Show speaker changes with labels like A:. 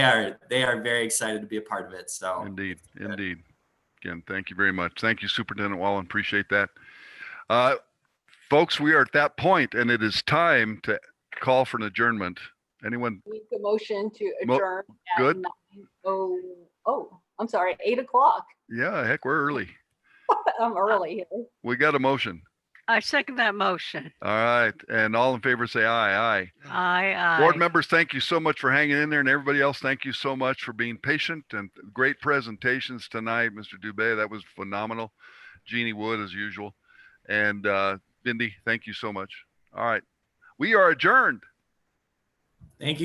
A: are they are very excited to be a part of it. So
B: Indeed, indeed. Again, thank you very much. Thank you, Superintendent Wallen. Appreciate that. Uh, folks, we are at that point and it is time to call for an adjournment. Anyone?
C: Make the motion to
B: Mo-
C: adjourn. at
B: good.
C: 9 Oh, oh, I'm sorry, eight o'clock.
B: Yeah, heck, we're early.
C: I'm early here.
B: We got a motion.
D: I second that motion.
B: All right. And all in favor, say aye, aye.
D: Aye, aye.
B: Board members, thank you so much for hanging in there and everybody else, thank you so much for being patient and great presentations tonight, Mr. Dubay. That was phenomenal. Jeannie Wood as usual. And uh Bindi, thank you so much. All right. We are adjourned.